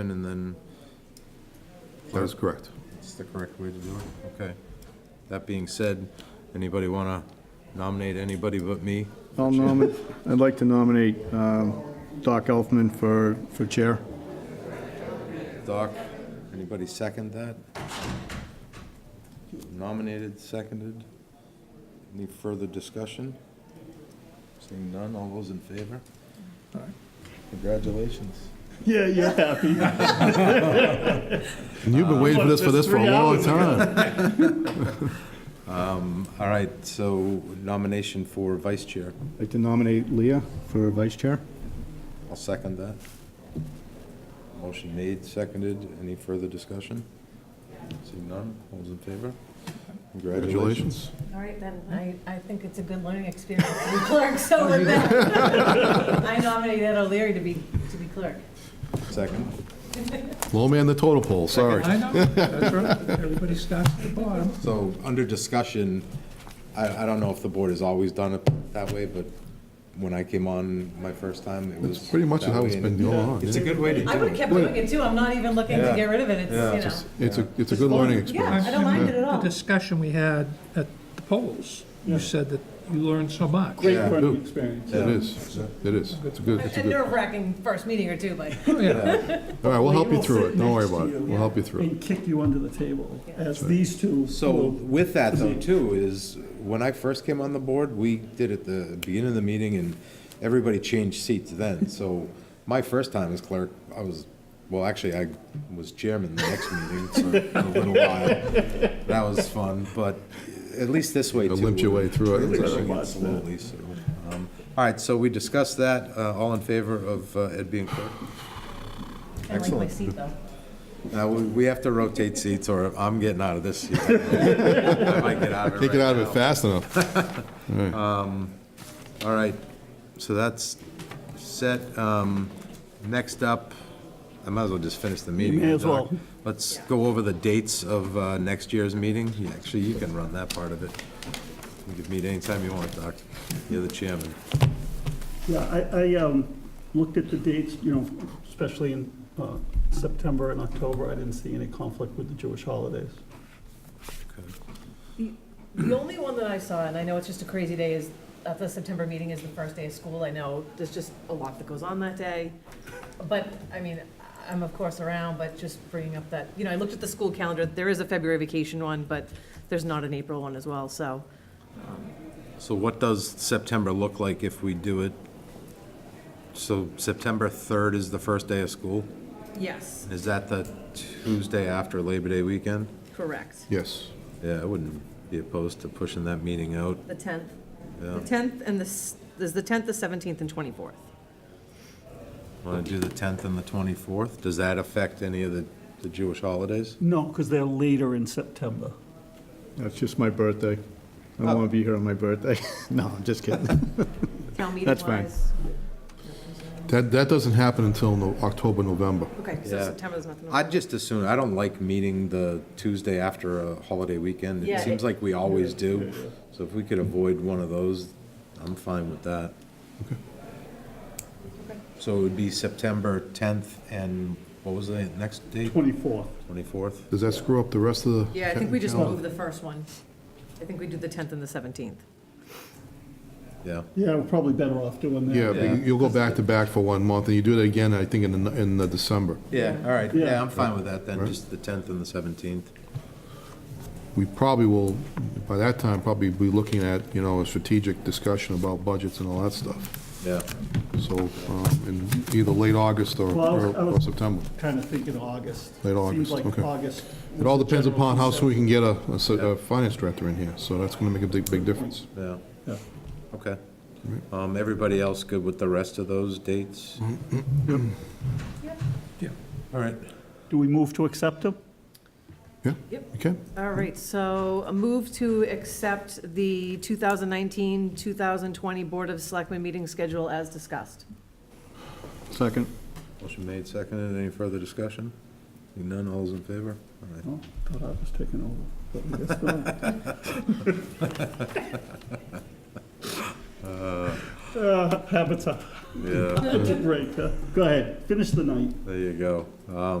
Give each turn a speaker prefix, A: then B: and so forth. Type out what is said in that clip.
A: and then
B: That is correct.
A: it's the correct way to do it. Okay. That being said, anybody want to nominate anybody but me?
C: I'll nominate, I'd like to nominate um, Doc Elfman for, for chair.
A: Doc, anybody second that? Nominated, seconded? Any further discussion? Seeing none, all those in favor? Congratulations.
D: Yeah, you're happy.
B: And you've been waiting for this, for this for a long
D: Just three
B: time.
A: All right, so nomination for vice chair.
C: I'd like to nominate Leah for vice chair.
A: I'll second that. Motion made, seconded. Any further discussion? Seeing none, all those in favor? Congratulations.
B: Congratulations.
E: All right, then, I, I think it's a good learning experience to be clerk,
A: Oh,
E: so with that, I nominate Ed O'Leary to be, to be clerk.
A: Second.
B: Low man the total pole, sorry.
F: I know, that's right. Everybody starts at the bottom.
A: So, under discussion, I, I don't know if the board has always done it that way, but when I came on my first time, it was.
B: That's pretty much
A: that
B: how it's
A: way,
B: been
A: and
B: going on.
A: It's a
B: yeah.
A: good way to do it.
E: I would've kept doing it too, I'm not even looking to
A: Yeah.
E: get rid of it,
A: Yeah.
E: it's,
A: Just-
E: you
B: It's a, it's a good learning experience.
E: I don't mind it at all.
F: The discussion we had at the polls, you said that you learned so much.
D: Great
A: Yeah.
D: learning experience.
B: It is, it is. It's a good, it's
E: know,
B: a
E: a
B: good. All
E: nerve-wracking first meeting or two, but,
F: Oh, yeah.
B: right, we'll help you
D: We'll
B: through
D: sit
B: it. Don't worry
D: next to
B: about it.
D: you
B: We'll help you through it.
D: And kick you under the table, as these two.
A: So
D: will.
A: with that though too, is when I first came on the board, we did at the beginning of the meeting and everybody changed seats then. So my first time as clerk, I was, well, actually, I was chairman the next meeting for a little while. That was fun, but at least this way
B: You
A: too.
B: limped your way through it.
A: Really doing it slowly, so, um, All right, so we discussed that. Uh, All in favor of uh, Ed being clerk?
E: I like my
A: Excellent.
E: seat though.
A: Now, we we have to rotate seats or I'm getting out of this seat. I might get out of it
B: Can't get
A: right
B: out of
A: now.
B: it fast enough.
A: All right, so that's set. Um, Next up, I might as well just finish the meeting.
D: may as
A: Doc.
D: well.
A: Let's go over the dates of uh, next year's meeting. Yeah, Actually, you can run that part of it. You can meet anytime you want, Doc. You're the chairman.
D: Yeah, I, I um, looked at the dates, you know, especially in uh, September and October, I didn't see any conflict with the Jewish holidays.
E: The only one that I saw, and I know it's just a crazy day, is at the September meeting is the first day of school. I know there's just a lot that goes on that day. But, I mean, I'm of course around, but just bringing up that, you know, I looked at the school calendar. There is a February vacation one, but there's not an April one as well, so.
A: So what does September look like if we do it? So September 3rd is the first day of school?
E: Yes,
A: Is that the Tuesday after Labor Day weekend?
E: correct.
B: Yes.
A: Yeah, I wouldn't be opposed to pushing that meeting out.
E: The 10th.
A: Yeah.
E: The 10th and the, s- there's the 10th, the 17th, and 24th.
A: Want to do the 10th and the 24th? Does that affect any of the the Jewish holidays?
D: No, because they're later in September.
C: That's just my birthday. I don't want to be here on my birthday. No, I'm just kidding.
E: Town meeting
C: That's fine.
E: wise.
B: That, that doesn't happen until no- October, November.
E: Okay, so
A: Yeah.
E: September, there's nothing.
A: I'd just assume, I don't like meeting the Tuesday after a holiday weekend. It
E: Yeah,
A: seems
E: it-
A: like we always do. So if we could avoid one of those, I'm fine with that. So it would be September 10th and what was the next date?
D: 24th.
A: 24th?
B: Does that screw up the rest of the?
E: Yeah, I think we just
B: calendar?
E: move the first one. I think we do the 10th and the 17th.
A: Yeah.
D: Yeah, we're probably better off doing that.
B: Yeah, but you- you'll go back to back for one month, and you do it again, I think, in, the- in the December.
A: Yeah, all right.
D: Yeah.
A: Yeah, I'm fine with that then,
B: Right.
A: just the 10th and the 17th.
B: We probably will, by that time, probably be looking at, you know, a strategic discussion about budgets and all that stuff.
A: Yeah.
B: So, um, in either late August or,
D: Well, I was-
B: or
D: I was-
B: or September.
D: Kind of thinking August.
B: Late
D: Seems
B: August,
D: like
B: okay.
D: August.
B: It all depends upon how soon we
D: sweet.
B: can get a, a s- a finance director in here, so that's gonna make a big, big difference.
A: Yeah.
D: Yeah.
A: Okay. Um, everybody else good with the rest of those dates? Yeah. All right.
D: Do we move to accept them?
B: Yeah?
E: Yep.
B: Okay?
E: All right, so a move to accept the 2019-2020 Board of Selectmen meeting schedule as discussed.
C: Second.
A: Motion made, seconded. Any further discussion? Seeing None, all's in favor? All right.
D: Oh, thought I was taking over, but I guess not. Uh, Habits are
A: Yeah,
D: Break, huh? Go ahead, finish the night.
A: there you go. Um,